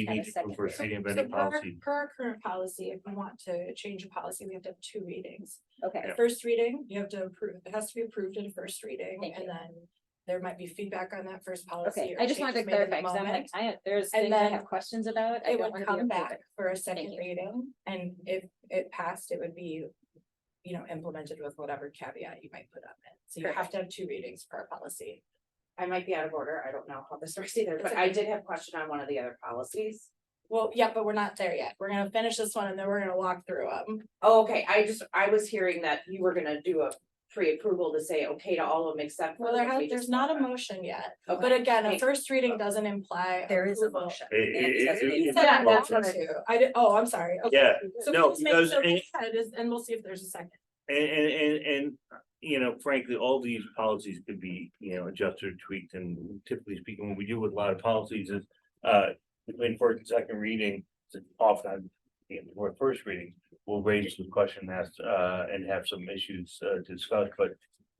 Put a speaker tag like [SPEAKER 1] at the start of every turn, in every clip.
[SPEAKER 1] You
[SPEAKER 2] Have a
[SPEAKER 1] need to go
[SPEAKER 2] second.
[SPEAKER 1] for a city
[SPEAKER 3] So
[SPEAKER 1] embedded
[SPEAKER 3] per our-
[SPEAKER 1] policy.
[SPEAKER 3] Per our current policy, if we want to change a policy, we have to have two readings.
[SPEAKER 2] Okay,
[SPEAKER 1] Yeah.
[SPEAKER 3] At first reading, you have to approve, it has to be approved at a first reading
[SPEAKER 2] Thank
[SPEAKER 3] and
[SPEAKER 2] you.
[SPEAKER 3] then there might be feedback on that first policy.
[SPEAKER 2] okay,
[SPEAKER 3] or
[SPEAKER 2] I just wanted to
[SPEAKER 3] changes made in
[SPEAKER 2] clarify,
[SPEAKER 3] the
[SPEAKER 2] cause I'm like,
[SPEAKER 3] moment.
[SPEAKER 2] I, there's
[SPEAKER 3] And
[SPEAKER 2] things I
[SPEAKER 3] then
[SPEAKER 2] have questions about. I
[SPEAKER 3] It
[SPEAKER 2] don't
[SPEAKER 3] would
[SPEAKER 2] wanna be
[SPEAKER 3] come
[SPEAKER 2] approved.
[SPEAKER 3] back for a second
[SPEAKER 2] you.
[SPEAKER 3] reading and if it passed, it would be, you know, implemented with whatever caveat you might put on it. So you have
[SPEAKER 2] Perfect.
[SPEAKER 3] to have two readings per policy.
[SPEAKER 4] I might be out of order, I don't know how this works either,
[SPEAKER 3] It's
[SPEAKER 4] but
[SPEAKER 3] okay.
[SPEAKER 4] I did have a question on one of the other policies.
[SPEAKER 3] Well, yeah, but we're not there yet. We're gonna finish this one and then we're gonna walk through them.
[SPEAKER 4] Oh, okay, I just, I was hearing that you were gonna do a pre-approval to say okay to all of them except. for
[SPEAKER 3] Well, there
[SPEAKER 4] what we
[SPEAKER 3] has, there's
[SPEAKER 4] just
[SPEAKER 3] not a
[SPEAKER 4] talked about.
[SPEAKER 3] motion yet,
[SPEAKER 4] Okay.
[SPEAKER 3] but again, a
[SPEAKER 4] Thank-
[SPEAKER 3] first reading doesn't imply.
[SPEAKER 5] There is a
[SPEAKER 3] approval.
[SPEAKER 5] motion.
[SPEAKER 1] It- it-
[SPEAKER 4] Yeah,
[SPEAKER 1] it-
[SPEAKER 4] that's what
[SPEAKER 1] it-
[SPEAKER 4] he
[SPEAKER 1] it's
[SPEAKER 3] Said I
[SPEAKER 1] a
[SPEAKER 3] want
[SPEAKER 1] motion.
[SPEAKER 3] to. I did, oh, I'm sorry. Okay.
[SPEAKER 1] Yeah,
[SPEAKER 3] So
[SPEAKER 1] no,
[SPEAKER 3] please make
[SPEAKER 1] because
[SPEAKER 3] sure
[SPEAKER 1] any-
[SPEAKER 3] we said is- and we'll see if there's a second.
[SPEAKER 1] and, and, and, and, you know, frankly, all these policies could be, you know, adjusted, or tweaked, and typically speaking, what we do with a lot of policies is. Uh, between first and second reading, often, you know, before first reading, we'll raise some question asked, uh, and have some issues, uh, discussed, but.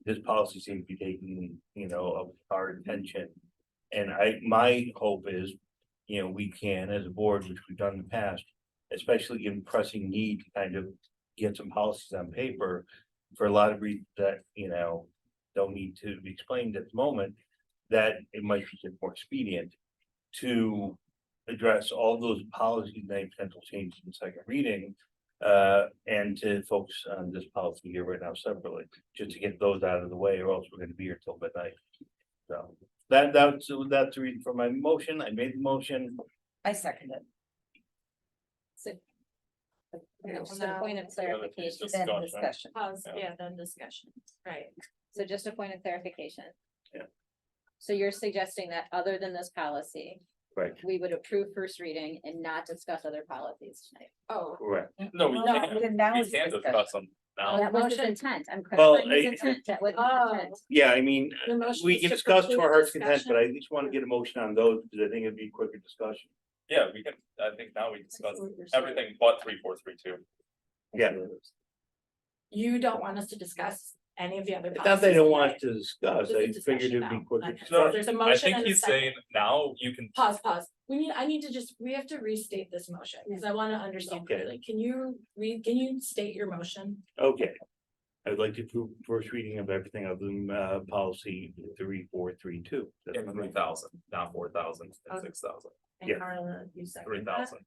[SPEAKER 1] This policy seems to be taking, you know, of our attention, and I, my hope is, you know, we can, as a board, which we've done in the past. Especially in pressing need, to kind of get some policies on paper for a lot of reasons that, you know, don't need to be explained at the moment, that it might be more expedient to address all those policies and any potential changes in second reading, uh, and to focus on this policy here right now separately, just to get those out of the way, or else we're gonna be here till midnight. So, that, that's, that's the reason for my motion, I made the motion,
[SPEAKER 5] I second it.
[SPEAKER 2] Okay, Just a point of clarification,
[SPEAKER 1] Just
[SPEAKER 5] Then
[SPEAKER 1] discussion.
[SPEAKER 5] discussion.
[SPEAKER 3] Pause,
[SPEAKER 1] Yeah.
[SPEAKER 3] yeah, then discussion, right.
[SPEAKER 2] so just a point of clarification.
[SPEAKER 1] Yeah.
[SPEAKER 2] So you're suggesting that other than this policy,
[SPEAKER 1] right,
[SPEAKER 2] we would approve first reading and not discuss other policies tonight?
[SPEAKER 3] Oh,
[SPEAKER 1] correct.
[SPEAKER 6] No, we
[SPEAKER 3] No,
[SPEAKER 6] can't,
[SPEAKER 5] Then now
[SPEAKER 6] we
[SPEAKER 5] is
[SPEAKER 6] can't
[SPEAKER 5] discussion.
[SPEAKER 6] discuss them now.
[SPEAKER 2] That was his
[SPEAKER 3] motion-
[SPEAKER 2] intent, I'm
[SPEAKER 1] Well,
[SPEAKER 2] clarifying his
[SPEAKER 1] I-
[SPEAKER 2] intent, that was
[SPEAKER 3] Oh.
[SPEAKER 2] his intent.
[SPEAKER 1] Yeah, I mean,
[SPEAKER 3] the motion
[SPEAKER 1] We
[SPEAKER 3] is
[SPEAKER 1] can
[SPEAKER 3] to
[SPEAKER 1] discuss to
[SPEAKER 3] preclude
[SPEAKER 1] our heart's content,
[SPEAKER 3] discussion.
[SPEAKER 1] but I just wanna get a motion on those, because I think it'd be quicker discussion.
[SPEAKER 6] Yeah, we can, I think now we
[SPEAKER 3] I
[SPEAKER 6] discuss
[SPEAKER 3] see what you're saying.
[SPEAKER 6] everything but three, four, three, two.
[SPEAKER 1] Yeah.
[SPEAKER 3] You don't want us to discuss any of the other.
[SPEAKER 1] Not that I don't
[SPEAKER 3] policies
[SPEAKER 1] want
[SPEAKER 3] today.
[SPEAKER 1] to discuss,
[SPEAKER 3] Just a
[SPEAKER 1] I figured
[SPEAKER 3] discussion
[SPEAKER 1] it'd be
[SPEAKER 3] now.
[SPEAKER 1] quicker
[SPEAKER 3] Okay.
[SPEAKER 6] discussion.
[SPEAKER 3] There's a
[SPEAKER 6] I
[SPEAKER 3] motion
[SPEAKER 6] think
[SPEAKER 3] and a
[SPEAKER 6] he's
[SPEAKER 3] second.
[SPEAKER 6] saying now you can,
[SPEAKER 3] Pause, pause. We need, I need to just, we have to restate this motion, because I want to understand
[SPEAKER 1] Okay.
[SPEAKER 3] clearly. Can you read, can you state your motion?
[SPEAKER 1] Okay. I'd like to approve first reading of everything other than uh policy three, four, three, two. That's
[SPEAKER 6] in
[SPEAKER 1] my
[SPEAKER 6] three
[SPEAKER 1] motion.
[SPEAKER 6] thousand, not four thousand,
[SPEAKER 3] Okay.
[SPEAKER 6] and six thousand,
[SPEAKER 3] And
[SPEAKER 1] Yeah.
[SPEAKER 3] Carla, you second
[SPEAKER 6] three
[SPEAKER 3] that?
[SPEAKER 6] thousand.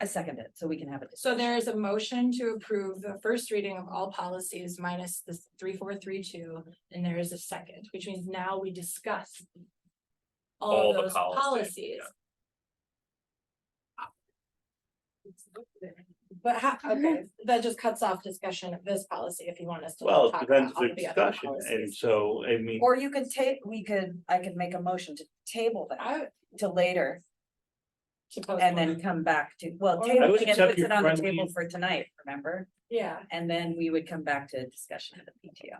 [SPEAKER 5] I second it, so we can have it.
[SPEAKER 3] So there is a motion to approve the first reading of all policies minus the three, four, three, two, and there is a second, which means now we discuss. All
[SPEAKER 6] All the
[SPEAKER 3] those
[SPEAKER 6] policies,
[SPEAKER 3] policies. But how, okay, that just cuts off discussion of this policy if you want us to.
[SPEAKER 1] Well, it
[SPEAKER 3] talk
[SPEAKER 1] depends
[SPEAKER 3] about all
[SPEAKER 1] the
[SPEAKER 3] of the other
[SPEAKER 1] discussion, and
[SPEAKER 3] policies.
[SPEAKER 1] so, I mean,
[SPEAKER 5] Or you could take, we could, I could make a motion to table that
[SPEAKER 3] I would
[SPEAKER 5] to later
[SPEAKER 3] suppose
[SPEAKER 5] and
[SPEAKER 3] one.
[SPEAKER 5] then come back to, well,
[SPEAKER 3] Or- I
[SPEAKER 5] table
[SPEAKER 1] would
[SPEAKER 5] it and
[SPEAKER 1] accept
[SPEAKER 5] puts
[SPEAKER 1] your
[SPEAKER 5] it on the
[SPEAKER 1] friendly-
[SPEAKER 5] table for tonight, remember?
[SPEAKER 3] Yeah,
[SPEAKER 5] And then we would come back to discussion of the PTO.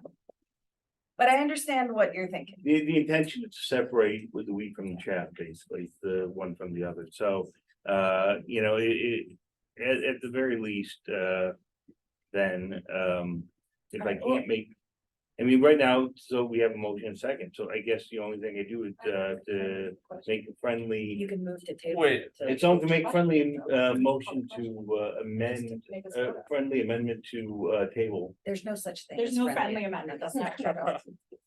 [SPEAKER 5] But I understand what you're thinking.
[SPEAKER 1] the the intention is to separate with the wheat from the chaff, basically, the one from the other, so. Uh, you know, it it, at at the very least, uh, then um, if I can't make. I mean, right now, so we have a motion and second, so I guess the only thing I do is uh to make a friendly.
[SPEAKER 5] You can move to table.
[SPEAKER 6] Wait,
[SPEAKER 5] to-
[SPEAKER 1] It's only to make friendly uh motion to uh, amend, uh friendly amendment to uh table.
[SPEAKER 5] There's no such thing.
[SPEAKER 3] there's
[SPEAKER 5] as
[SPEAKER 3] no friendly amendment, that's not true.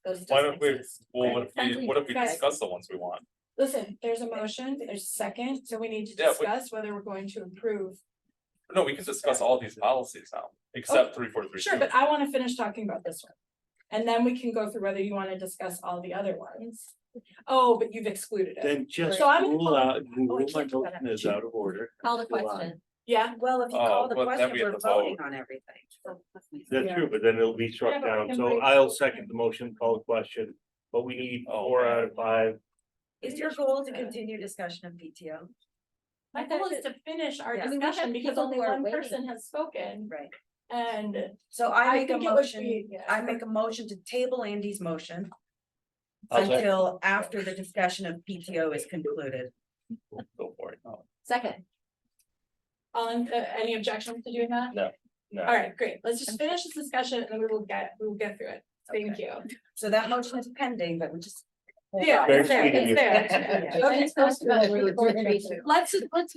[SPEAKER 3] Those
[SPEAKER 6] Why
[SPEAKER 3] don't
[SPEAKER 6] don't we,
[SPEAKER 3] exist.
[SPEAKER 6] well, what if
[SPEAKER 2] Friendly
[SPEAKER 6] we, what if we
[SPEAKER 3] discussion.
[SPEAKER 6] discuss the ones we want?
[SPEAKER 3] Listen, there's a motion, there's a second, so we need to
[SPEAKER 6] Yeah, we-
[SPEAKER 3] discuss whether we're going to approve.
[SPEAKER 6] No, we can discuss all these policies now, except three, four, three, two.
[SPEAKER 3] Sure, but I wanna finish talking about this one. And then we can go through whether you wanna discuss all the other ones. Oh, but you've excluded it.
[SPEAKER 1] Then just
[SPEAKER 3] So I'm-
[SPEAKER 1] rule out,
[SPEAKER 3] Oh, I
[SPEAKER 1] rule my
[SPEAKER 3] can't do that.
[SPEAKER 1] motion is out of order.
[SPEAKER 2] Call the
[SPEAKER 1] July.
[SPEAKER 2] question.
[SPEAKER 3] Yeah,
[SPEAKER 5] Well, if you
[SPEAKER 6] Oh,
[SPEAKER 5] call the
[SPEAKER 6] well, then
[SPEAKER 5] question,
[SPEAKER 6] we have
[SPEAKER 5] we're
[SPEAKER 6] to vote.
[SPEAKER 5] voting on everything.
[SPEAKER 1] That's
[SPEAKER 3] Yeah.
[SPEAKER 1] true, but then it'll be
[SPEAKER 3] Yeah,
[SPEAKER 1] struck
[SPEAKER 3] but we
[SPEAKER 1] down,
[SPEAKER 3] can
[SPEAKER 1] so
[SPEAKER 3] break-
[SPEAKER 1] I'll second the motion, call the question, but we need four out of five.
[SPEAKER 5] Is your goal to continue discussion of PTO?
[SPEAKER 3] my goal is to finish our
[SPEAKER 5] Yeah. I
[SPEAKER 2] mean, we have
[SPEAKER 3] discussion because
[SPEAKER 2] people
[SPEAKER 3] only
[SPEAKER 2] who are
[SPEAKER 3] one
[SPEAKER 2] waiting.
[SPEAKER 3] person has spoken
[SPEAKER 5] Right.
[SPEAKER 3] and.
[SPEAKER 5] So I
[SPEAKER 3] I
[SPEAKER 5] make a
[SPEAKER 3] think it would
[SPEAKER 5] motion,
[SPEAKER 3] be- yeah.
[SPEAKER 5] I make a motion to table Andy's motion.
[SPEAKER 1] I'll second.
[SPEAKER 5] Until after the discussion of PTO is concluded.
[SPEAKER 6] Go for it. No.
[SPEAKER 2] Second,
[SPEAKER 3] All in, uh, any objection to doing that?
[SPEAKER 1] No.
[SPEAKER 3] All right, great, let's just finish this discussion and then we will get, we will get through it. Thank
[SPEAKER 5] Okay.
[SPEAKER 3] you.
[SPEAKER 5] So that motion is pending, but we just. hold
[SPEAKER 3] Yeah,
[SPEAKER 5] on.
[SPEAKER 1] Very
[SPEAKER 3] it's there,
[SPEAKER 1] sweet of
[SPEAKER 3] it's
[SPEAKER 1] you.
[SPEAKER 3] there.
[SPEAKER 2] Okay, let's talk about three, four, three, two.
[SPEAKER 3] Let's, let's